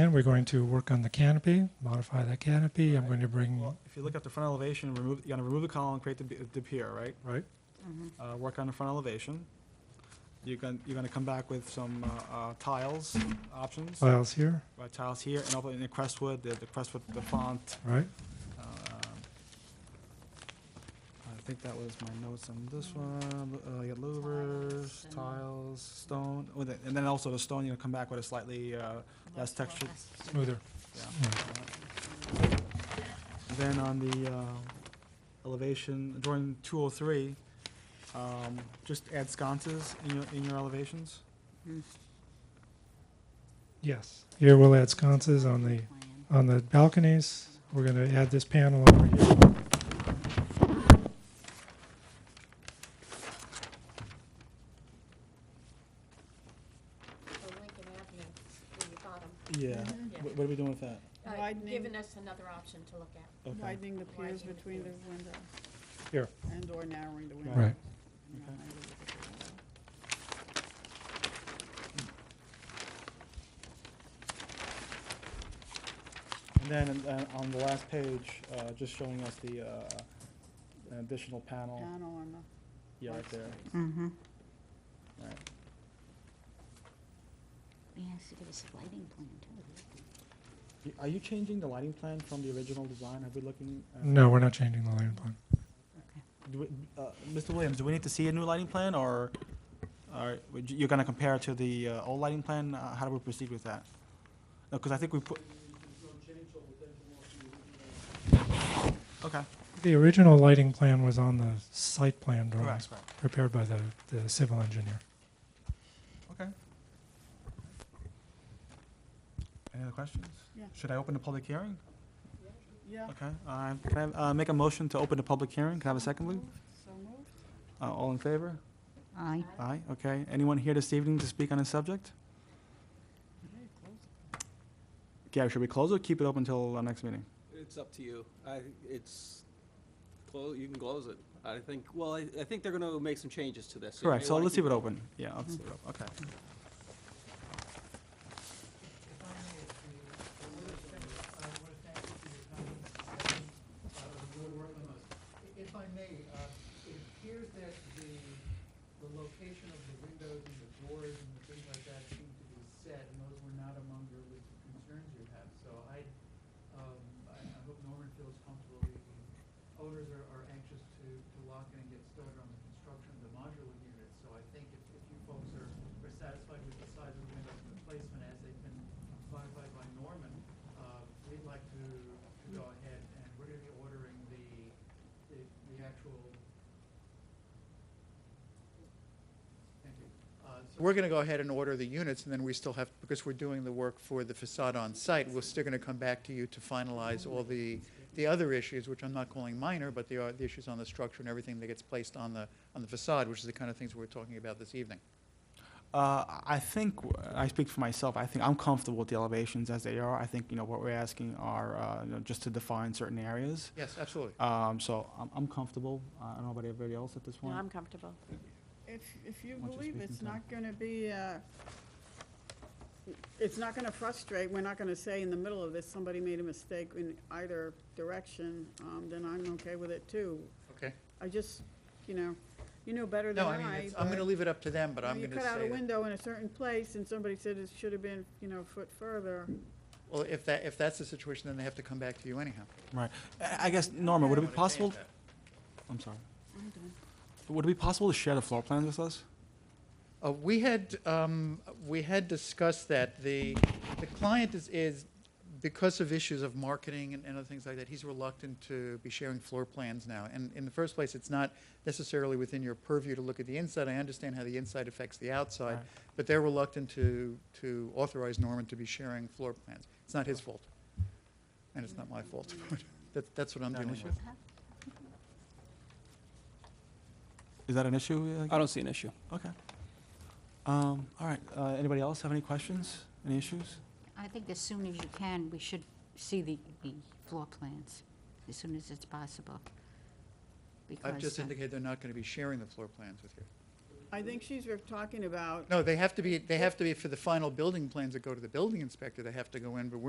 plan, we're going to work on the canopy, modify that canopy. I'm going to bring, Well, if you look at the front elevation, remove, you're gonna remove the column, create the, b- the pier, right? right? Uh, work on the front elevation. You're gonna, you're gonna come back with some, uh, uh, tiles options, Files here, right, tiles here, and over in the Crestwood, the, the Crestwood, the font. right? um, I think that was my notes on this one, uh, you got louvers, Tiles, tiles, stone, with it- and then also the stone, you're gonna come back with a slightly, uh, less texture, Smoother. yeah. Yeah. Then on the uh, elevation, drawing 203, um, just add sconces in your, in your elevations. Yes. Here we'll add sconces on the, on the balconies. We're going to add this panel over here. for Lincoln Avenue in the bottom. Mm-hmm. Yeah. Yeah. What are we doing with that? Uh, Widening. Giving us another option to look at. Okay. Widening the piers Widening the between the piers. window. Here. And/or narrowing the window. Right. And then uh, on the last page, uh, just showing us the uh, an additional panel, Panel on Oh. yeah, right there. Mm-hmm. Right. He has to give us a lighting plan too. Y- Are you changing the lighting plan from the original design? Have we looking? uh, No, we're not changing the lighting plan. do we- uh, Mr. Williams, do we need to see a new lighting plan, or or would you- you're going to compare it to the uh, old lighting plan? Uh, How do we proceed with that? Because I think we put... Okay. The original lighting plan was on the site plan drawings Correct, correct. prepared by the, the civil engineer. Okay. Any other questions? Yeah. Should I open the public hearing? Yeah, Okay. uh, Can I uh, make a motion to open the public hearing? Can I have a second, please? so moved. Uh, All in favor? Aye. Aye, okay. Anyone here this evening to speak on this subject? Okay, close. Gary, should we close or keep it open until our next meeting? It's up to you. I, it's, clo- you can close it. I think, well, I, I think they're gonna make some changes to this. you Correct, may so wanna let's keep leave it open. Yeah, let's leave it open, okay. If I may, uh, it appears that the, the location of the windows and the doors and the things like that seem to be set, and those were not among your list of concerns you have. So I, um, I I hope Norman feels comfortable. The Owners are, are anxious to, to lock in and get started on the construction of the modular units. So I think if, if you folks are, are satisfied with the size of the windows and the placement as they've been clarified by Norman, uh, we'd like to, to go ahead, and we're gonna be ordering the, the, the actual. Thank you. Uh, so We're gonna go ahead and order the units, and then we still have, because we're doing the work for the facade on site, we're still gonna come back to you to finalize all the, the other issues, which I'm not calling minor, but they are the issues on the structure and everything that gets placed on the, on the facade, which is the kind of things we're talking about this evening. Uh, I think, w- I speak for myself, I think I'm comfortable with the elevations as they are. I think, you know, what we're asking are, uh, you know, just to define certain areas. Yes, absolutely. Um, So I'm, I'm comfortable. Uh, I don't know about everybody else at this point. comfortable. If, if you Why don't you believe speak it's into it? not gonna be, uh, it's not gonna frustrate, we're not gonna say in the middle of this, somebody made a mistake in either direction, um, then I'm okay with it too. Okay. I just, you know, you know better than No, I. I mean, it's- I'm but- gonna leave it up to them, but Well, I'm you gonna cut out a say, that- window in a certain place, and somebody said it should have been, you know, a foot further. well, if that, if that's the situation, then they have to come back to you anyhow. Right. I I guess, Norma, would it be possible, I'm sorry, would it be possible to share the floor plans with us? Uh, We had, um, we had discussed that. The, the client is, is, because of issues of marketing and and other things like that, he's reluctant to be sharing floor plans now. And in the first place, it's not necessarily within your purview to look at the inside. I understand how the inside affects the outside, Right. but they're reluctant to, to authorize Norman to be sharing floor plans. It's not his fault, and it's not my fault. That, that's what I'm Not an dealing issue. with. Is that an issue? it. I don't see an issue. Okay. Um, All right, uh, anybody else have any questions, any issues? I think as soon as you can, we should see the, the floor plans, as soon as it's possible. I've just Because, uh, indicated they're not going to be sharing the floor plans with you. I think she's re- talking about No, they have to be, they have to be for the final building plans that go to the building inspector, they have to go in, but we're